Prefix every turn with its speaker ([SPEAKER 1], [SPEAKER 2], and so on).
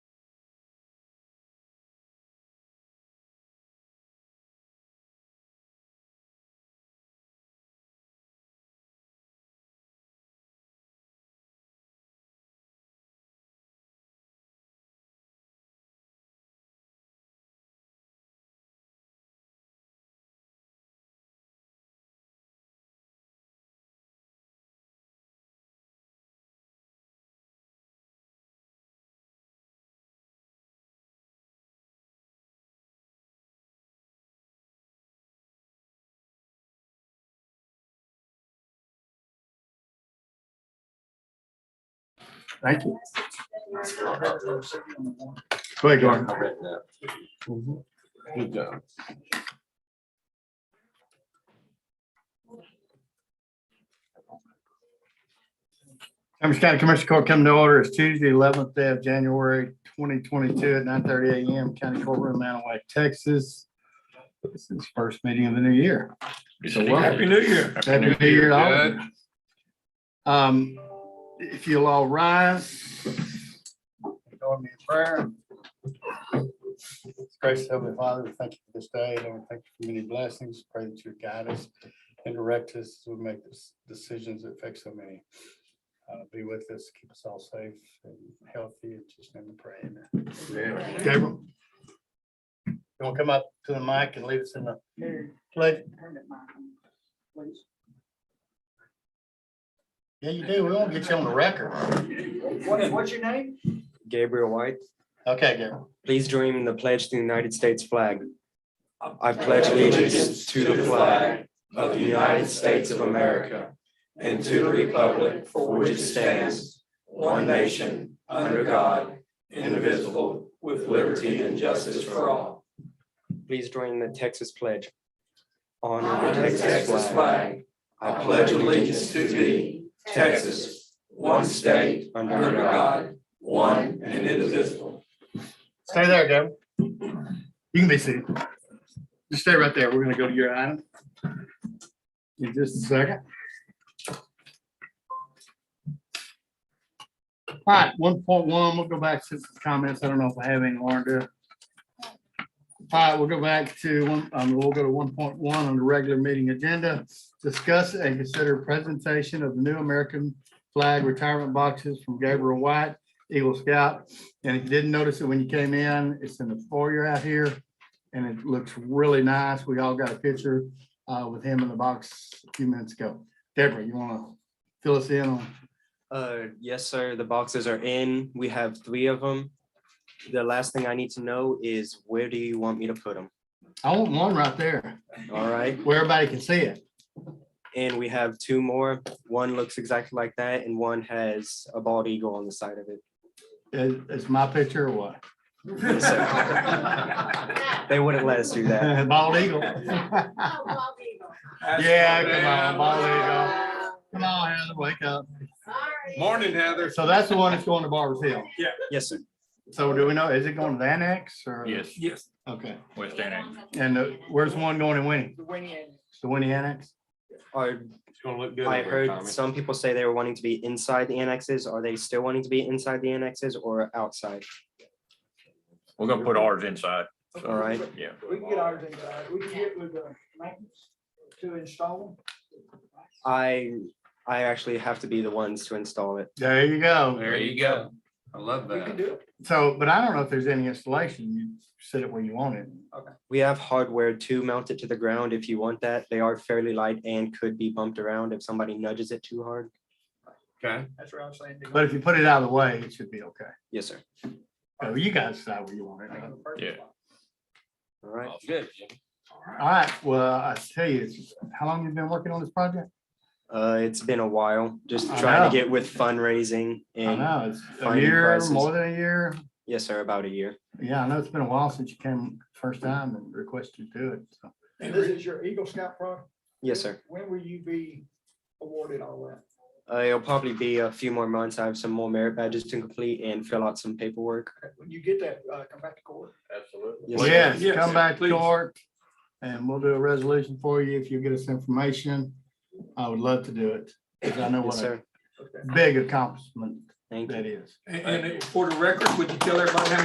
[SPEAKER 1] Thank you. Go ahead, Gordon.
[SPEAKER 2] I read that. Good job.
[SPEAKER 1] Cambridge County Commissioner Court coming to order is Tuesday, eleventh day of January, twenty twenty-two at nine thirty AM, County Courtroom, Manaway, Texas. This is first meeting of the new year. So welcome.
[SPEAKER 3] New Year.
[SPEAKER 1] Happy New Year. to all of you. Um, if you'll all rise. Join me in prayer. Gracious Heavenly Father, we thank you for this day, and we thank you for many blessings. Pray that you guide us and direct us as we make this- decisions that affect so many. Uh, Be with us, keep us all safe and healthy, and just in the prayer. Gabriel. You want to come up to the mic and lead us in the pledge? Yeah, you do. We won't get you on the record.
[SPEAKER 4] What, what's your name?
[SPEAKER 5] Gabriel White.
[SPEAKER 1] Okay, Gabriel.
[SPEAKER 5] Please join me in the pledge to the United States flag. I pledge allegiance to the flag of the United States of America and to the republic for which it stands, one nation, under God, indivisible, with liberty and justice for all. Please join the Texas pledge. Honor the Texas flag. I pledge allegiance to thee, Texas, one state, under God, one and indivisible.
[SPEAKER 1] Stay there, Gabriel. You can be seated. Just stay right there. We're gonna go to your item. In just a second. All right, one point one, we'll go back to the comments. I don't know if I have any, Lauren, do. All right, we'll go back to, one. um, we'll go to one point one on the regular meeting agenda. Discuss and consider presentation of new American flag retirement boxes from Gabriel White, Eagle Scout, and if you didn't notice it when you came in, it's in the foyer out here. And it looks really nice. We all got a picture uh, with him in the box a few minutes ago. Deborah, you want to fill us in on?
[SPEAKER 5] Uh, yes, sir. The boxes are in. We have three of them. The last thing I need to know is where do you want me to put them?
[SPEAKER 1] I want one right there
[SPEAKER 5] All right.
[SPEAKER 1] where everybody can see it.
[SPEAKER 5] And we have two more. One looks exactly like that, and one has a bald eagle on the side of it.
[SPEAKER 1] Is, is my picture or what?
[SPEAKER 5] Yes, sir. They wouldn't let us do that.
[SPEAKER 1] Bald eagle. Yeah, come on, bald eagle.
[SPEAKER 4] Wow.
[SPEAKER 1] Come on, Heather, wake up.
[SPEAKER 4] Sorry.
[SPEAKER 3] Morning, Heather.
[SPEAKER 1] So that's the one that's going to Barber's Hill.
[SPEAKER 5] Yes, sir.
[SPEAKER 1] So do we know, is it going to the annex or?
[SPEAKER 3] Yes, yes,
[SPEAKER 1] Okay,
[SPEAKER 3] West Annex.
[SPEAKER 1] and uh, where's the one going in Winnie?
[SPEAKER 4] The winning.
[SPEAKER 1] The Winnie Annex?
[SPEAKER 5] Are,
[SPEAKER 3] It's gonna look good.
[SPEAKER 5] I
[SPEAKER 3] over
[SPEAKER 5] heard
[SPEAKER 3] time.
[SPEAKER 5] some people say they were wanting to be inside the annexes. Are they still wanting to be inside the annexes or outside?
[SPEAKER 6] We're gonna put ours inside,
[SPEAKER 5] All right.
[SPEAKER 6] yeah.
[SPEAKER 4] We can get ours inside. We can get with the maintenance to install
[SPEAKER 5] I, I actually have to be the ones to install it.
[SPEAKER 1] There you go.
[SPEAKER 3] There you go. I love
[SPEAKER 4] them. We can
[SPEAKER 3] that.
[SPEAKER 4] do it.
[SPEAKER 1] So, but I don't know if there's any installation. You set it where you want it.
[SPEAKER 5] We have hardware to mount it to the ground if you want that. They are fairly light and could be bumped around if somebody nudges it too hard.
[SPEAKER 3] Okay.
[SPEAKER 4] That's what I'm saying.
[SPEAKER 1] But if you put it out of the way, it should be okay.
[SPEAKER 5] Yes, sir.
[SPEAKER 1] So you guys decide where you want it.
[SPEAKER 6] Yeah.
[SPEAKER 5] All right.
[SPEAKER 3] Good.
[SPEAKER 1] All right, well, I tell you, it's- how long you been working on this project?
[SPEAKER 5] Uh, it's been a while, just
[SPEAKER 1] I
[SPEAKER 5] trying
[SPEAKER 1] know.
[SPEAKER 5] to get with fundraising
[SPEAKER 1] I
[SPEAKER 5] and
[SPEAKER 1] know, it's a
[SPEAKER 5] finding
[SPEAKER 1] year,
[SPEAKER 5] prices.
[SPEAKER 1] more than a year.
[SPEAKER 5] yes, sir, about a year.
[SPEAKER 1] Yeah, I know it's been a while since you came first time and requested to do it. So
[SPEAKER 4] And this is your Eagle Scout product.
[SPEAKER 5] Yes, sir.
[SPEAKER 4] When will you be awarded all that?
[SPEAKER 5] Uh, it'll probably be a few more months. I have some more merit badges to complete and fill out some paperwork.
[SPEAKER 4] Okay, When you get that, uh, come back to court.
[SPEAKER 3] Absolutely.
[SPEAKER 5] Yes, sir.
[SPEAKER 1] Yes,
[SPEAKER 3] Yes,
[SPEAKER 1] come back to
[SPEAKER 3] please.
[SPEAKER 1] court and we'll do a resolution for you if you get us information. I would love to do it. Because I know
[SPEAKER 5] Yes,
[SPEAKER 1] what a
[SPEAKER 5] sir.
[SPEAKER 4] Okay.
[SPEAKER 1] big accomplishment
[SPEAKER 5] Thank you.
[SPEAKER 1] that is.
[SPEAKER 3] And, and for the record, would you tell everybody how